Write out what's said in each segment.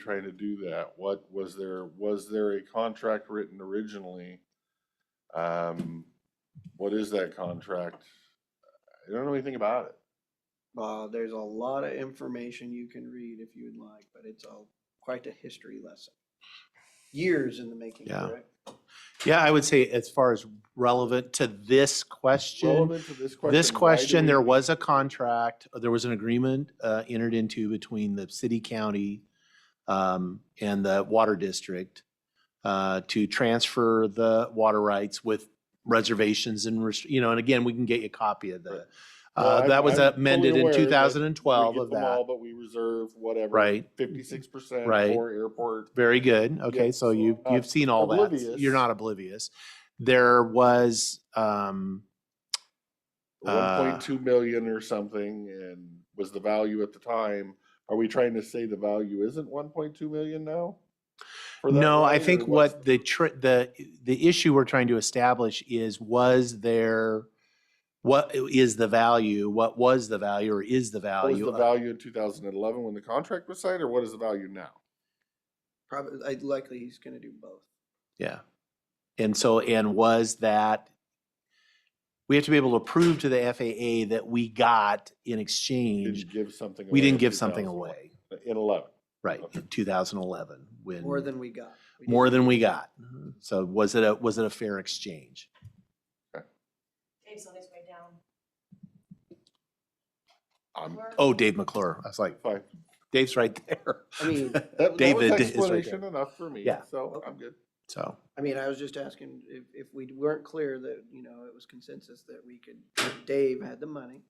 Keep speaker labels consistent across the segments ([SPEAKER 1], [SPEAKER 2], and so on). [SPEAKER 1] trying to do that? What, was there, was there a contract written originally? Um, what is that contract? I don't know anything about it.
[SPEAKER 2] Uh, there's a lot of information you can read if you'd like, but it's all quite a history lesson. Years in the making,
[SPEAKER 3] Yeah.
[SPEAKER 2] correct?
[SPEAKER 3] Yeah, I would say as far as relevant to this question,
[SPEAKER 1] Relevant to this question.
[SPEAKER 3] this
[SPEAKER 1] why do
[SPEAKER 3] question,
[SPEAKER 1] we-
[SPEAKER 3] there was a contract, uh, there was an agreement uh, entered into between the city, county, um, and the water district uh, to transfer the water rights with reservations and, rest- you know, and again, we can get you a copy of
[SPEAKER 1] Right.
[SPEAKER 3] the,
[SPEAKER 1] Well,
[SPEAKER 3] uh,
[SPEAKER 1] I'm-
[SPEAKER 3] that was
[SPEAKER 1] I'm fully
[SPEAKER 3] amended
[SPEAKER 1] aware
[SPEAKER 3] in
[SPEAKER 1] that
[SPEAKER 3] 2012
[SPEAKER 1] We
[SPEAKER 3] of
[SPEAKER 1] get them all,
[SPEAKER 3] that.
[SPEAKER 1] But we reserve whatever.
[SPEAKER 3] Right.
[SPEAKER 1] Fifty-six percent
[SPEAKER 3] Right.
[SPEAKER 1] for airport.
[SPEAKER 3] Very good. Okay,
[SPEAKER 1] Yeah, so
[SPEAKER 3] so you've,
[SPEAKER 1] I'm
[SPEAKER 3] you've seen all that.
[SPEAKER 1] Uh, oblivious.
[SPEAKER 3] You're not oblivious. There was, um,
[SPEAKER 1] one
[SPEAKER 3] Uh,
[SPEAKER 1] point two million or something and was the value at the time. Are we trying to say the value isn't one point two million now? for that
[SPEAKER 3] No, I
[SPEAKER 1] right,
[SPEAKER 3] think
[SPEAKER 1] or what's
[SPEAKER 3] what the, tr- the, the issue we're trying to establish is, was there, what is the value, what was the value, or is the
[SPEAKER 1] What was
[SPEAKER 3] value?
[SPEAKER 1] the
[SPEAKER 3] of-
[SPEAKER 1] value in two thousand and eleven when the contract was signed or what is the value now?
[SPEAKER 2] Probably, I- likely he's gonna do both.
[SPEAKER 3] Yeah. And so, and was that, we have to be able to prove to the FAA that we got in exchange,
[SPEAKER 1] Didn't give something.
[SPEAKER 3] we
[SPEAKER 1] away in
[SPEAKER 3] didn't give something
[SPEAKER 1] 2011.
[SPEAKER 3] away,
[SPEAKER 1] In eleven.
[SPEAKER 3] right, in 2011, when.
[SPEAKER 2] More than we got. We
[SPEAKER 3] More
[SPEAKER 2] didn't-
[SPEAKER 3] than we got. So was it a, was it a fair exchange?
[SPEAKER 4] Dave's on his way down.
[SPEAKER 1] I'm
[SPEAKER 4] Or-
[SPEAKER 3] Oh, Dave McClure. I was like,
[SPEAKER 1] fine.
[SPEAKER 3] Dave's right there.
[SPEAKER 2] I mean,
[SPEAKER 1] That- that was
[SPEAKER 3] David is right there.
[SPEAKER 1] Explanation enough for me,
[SPEAKER 3] Yeah.
[SPEAKER 1] so
[SPEAKER 2] Okay.
[SPEAKER 1] I'm good.
[SPEAKER 3] So.
[SPEAKER 2] I mean, I was just asking if, if we weren't clear that, you know, it was consensus that we could, that Dave had the money,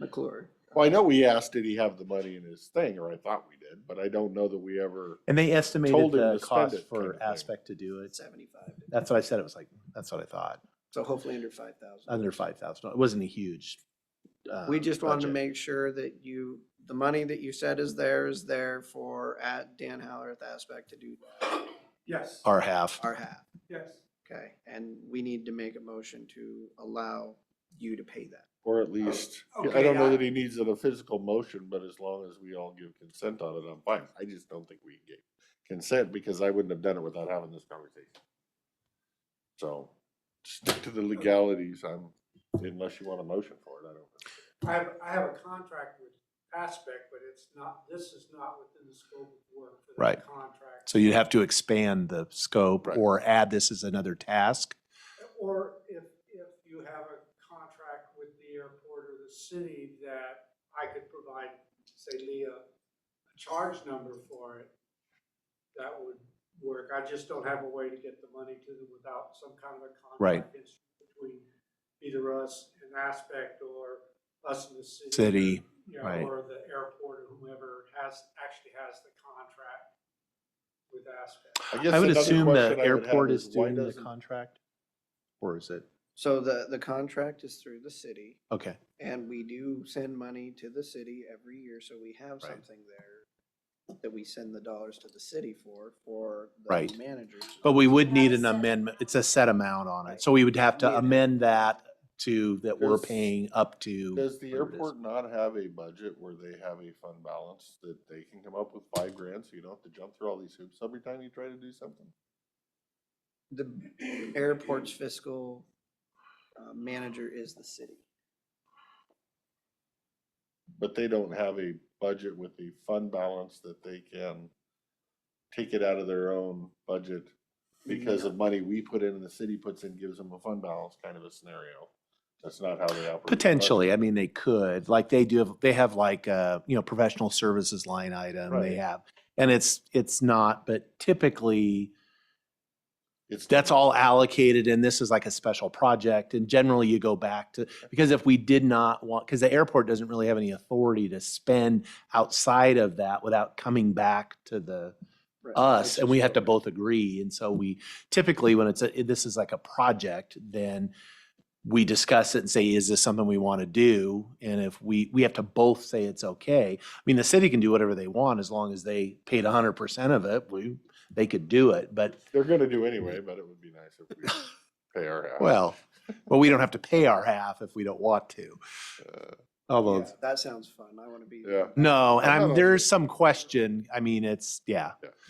[SPEAKER 2] McClure. uh,
[SPEAKER 1] Well, I know we asked, did he have the money in his thing, or I thought we did, but I don't know that we ever.
[SPEAKER 3] And they
[SPEAKER 1] Told
[SPEAKER 3] estimated
[SPEAKER 1] him
[SPEAKER 3] the
[SPEAKER 1] to spend
[SPEAKER 3] cost
[SPEAKER 1] it kind of
[SPEAKER 3] for
[SPEAKER 1] thing.
[SPEAKER 3] Aspect to do it.
[SPEAKER 2] Seventy-five,
[SPEAKER 3] That's what I said. It was like, that's what I thought.
[SPEAKER 2] so hopefully under five thousand.
[SPEAKER 3] Under five thousand. It wasn't a huge.
[SPEAKER 2] We
[SPEAKER 3] um,
[SPEAKER 2] just wanted to
[SPEAKER 3] budget.
[SPEAKER 2] make sure that you, the money that you said is there is there for at Dan Howarth aspect to do
[SPEAKER 5] Yes,
[SPEAKER 3] Our half.
[SPEAKER 2] our half,
[SPEAKER 5] yes.
[SPEAKER 2] okay? And we need to make a motion to allow you to pay that.
[SPEAKER 1] Or at least, I
[SPEAKER 5] Oh, okay,
[SPEAKER 1] don't know
[SPEAKER 5] I-
[SPEAKER 1] that he needs it a physical motion, but as long as we all give consent on it, I'm fine. I just don't think we gave consent because I wouldn't have done it without having this conversation. So stick to the legalities. I'm, unless you want a motion for it, I don't.
[SPEAKER 5] I have, I have a contract with Aspect, but it's not, this is not within the scope of work for
[SPEAKER 3] Right.
[SPEAKER 5] that contract.
[SPEAKER 3] So you'd have to expand the scope
[SPEAKER 1] Right.
[SPEAKER 3] or add this as another task.
[SPEAKER 5] Or if, if you have a contract with the airport or the city that I could provide, say Leah, a charge number for it, that would work. I just don't have a way to get the money to them without some kind of a
[SPEAKER 3] Right.
[SPEAKER 5] contract instrument between either us and Aspect or us and the city.
[SPEAKER 3] City,
[SPEAKER 5] you know,
[SPEAKER 3] right.
[SPEAKER 5] or the airport or whoever has, actually has the contract with Aspect.
[SPEAKER 1] guess
[SPEAKER 3] I would
[SPEAKER 1] another question
[SPEAKER 3] assume the
[SPEAKER 1] I would have
[SPEAKER 3] airport is
[SPEAKER 1] why
[SPEAKER 3] doing the
[SPEAKER 1] doesn't-
[SPEAKER 3] contract? Or is it?
[SPEAKER 2] So the, the contract is through the city
[SPEAKER 3] Okay.
[SPEAKER 2] and we do send money to the city every year, so we have
[SPEAKER 3] Right.
[SPEAKER 2] something there that we send the dollars to the city for, for the
[SPEAKER 3] Right.
[SPEAKER 2] managers.
[SPEAKER 3] But we would need
[SPEAKER 4] Not a
[SPEAKER 3] an
[SPEAKER 4] set
[SPEAKER 3] amendment.
[SPEAKER 4] amount.
[SPEAKER 3] It's a set amount on
[SPEAKER 2] Right.
[SPEAKER 3] it. So we would have to
[SPEAKER 2] Yeah.
[SPEAKER 3] amend that to, that we're
[SPEAKER 1] Does-
[SPEAKER 3] paying up to.
[SPEAKER 1] Does the
[SPEAKER 3] whatever it is.
[SPEAKER 1] airport not have a budget where they have a fund balance that they can come up with five grand, so you don't have to jump through all these hoops every time you try to do something?
[SPEAKER 2] The airport's fiscal uh, manager is the city.
[SPEAKER 1] But they don't have a budget with a fund balance that they can take it out of their own budget because of money we put in and the city puts in, gives them a fund balance kind of a scenario. That's not how they operate. the budget.
[SPEAKER 3] Potentially, I mean, they could, like they do, have they have like, uh, you know, professional services line item,
[SPEAKER 1] Right.
[SPEAKER 3] they have. And it's, it's not, but typically,
[SPEAKER 1] It's
[SPEAKER 3] that's all allocated and this is like a special project. And generally you go back to, because if we did not want, because the airport doesn't really have any authority to spend outside of that without coming back to the,
[SPEAKER 2] Right.
[SPEAKER 3] us and we have to
[SPEAKER 1] Legislature.
[SPEAKER 3] both agree. And so we typically, when it's, a this is like a project, then we discuss it and say, is this something we want to do? And if we, we have to both say it's okay. I mean, the city can do whatever they want as long as they paid hundred percent of it, we, they could do it. But,
[SPEAKER 1] They're gonna do anyway, but it would be nice if we pay our half.
[SPEAKER 3] well, well, we don't have to pay our half if we don't want to.
[SPEAKER 1] Uh,
[SPEAKER 3] Although,
[SPEAKER 2] Yeah, That sounds fun. I want to be.
[SPEAKER 1] Yeah.
[SPEAKER 3] no, and
[SPEAKER 1] I'm
[SPEAKER 3] I'm,
[SPEAKER 1] not
[SPEAKER 3] there
[SPEAKER 1] okay.
[SPEAKER 3] is some question. I mean, it's, yeah.